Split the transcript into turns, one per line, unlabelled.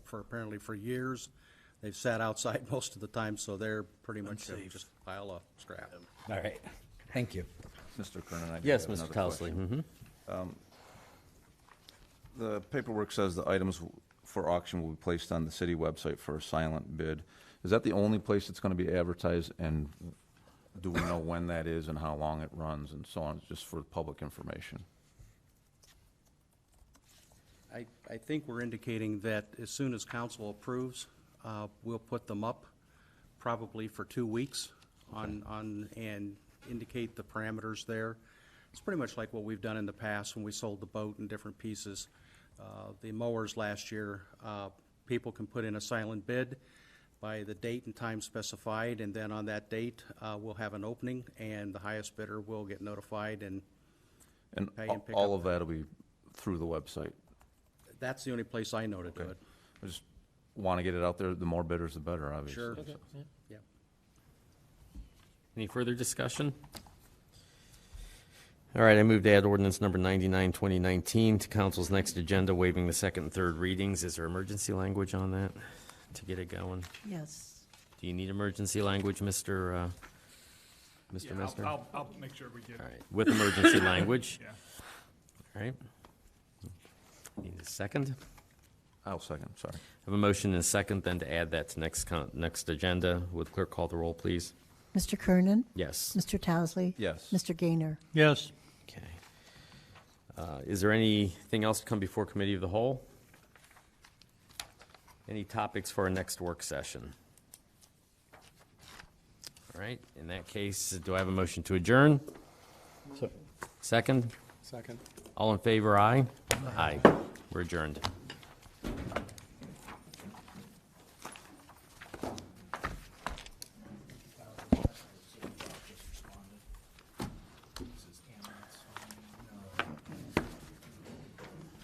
for, apparently for years. They've sat outside most of the time, so they're pretty much a- just a pile of scrap.
All right, thank you.
Mr. Kernan, I do
Yes,
have another
Mr. Towesley.
question.
mhm.
The paperwork says the items w- for auction will be placed on the city website for a silent bid. Is that the only place it's going to be advertised, and do we know when that is and how long it runs and so on, just for public information?
I, I think we're indicating that as soon as council approves, uh, we'll put them up probably for two weeks on, on, and indicate the parameters there. It's pretty much like what we've done in the past when we sold the boat in different pieces. Uh, The mowers last year, uh, people can put in a silent bid by the date and time specified, and then on that date, uh, we'll have an opening, and the highest bidder will get notified, and
And
Pay
a-
and pick
all
up.
of that'll be through the website.
that's the only place I know to do it.
I just want to get it out there, the more bidders, the better, obviously.
Sure.
so.
Yeah.
Any further discussion? All right, I move to add ordinance number 99, 2019 to council's next agenda, waiving the second and third readings. Is there emergency language on that to get it going?
Yes.
Do you need emergency language, Mr. uh, Mr.
Yeah, I'll-
Mester? All
I'll, I'll make sure we get,
right, with emergency language,
yeah.
all right? Need a second?
I'll second, sorry.
Have a motion and a second, then to add that to next, con- next agenda. Would clerk call the roll, please?
Mr. Kernan?
Yes.
Mr. Towesley?
Yes.
Mr. Gaynor?
Yes.
Okay. Uh, Is there anything else to come before Committee of the Whole? Any topics for our next work session? All right, in that case, do I have a motion to adjourn? Second? Second. All in favor, aye? Aye. We're adjourned.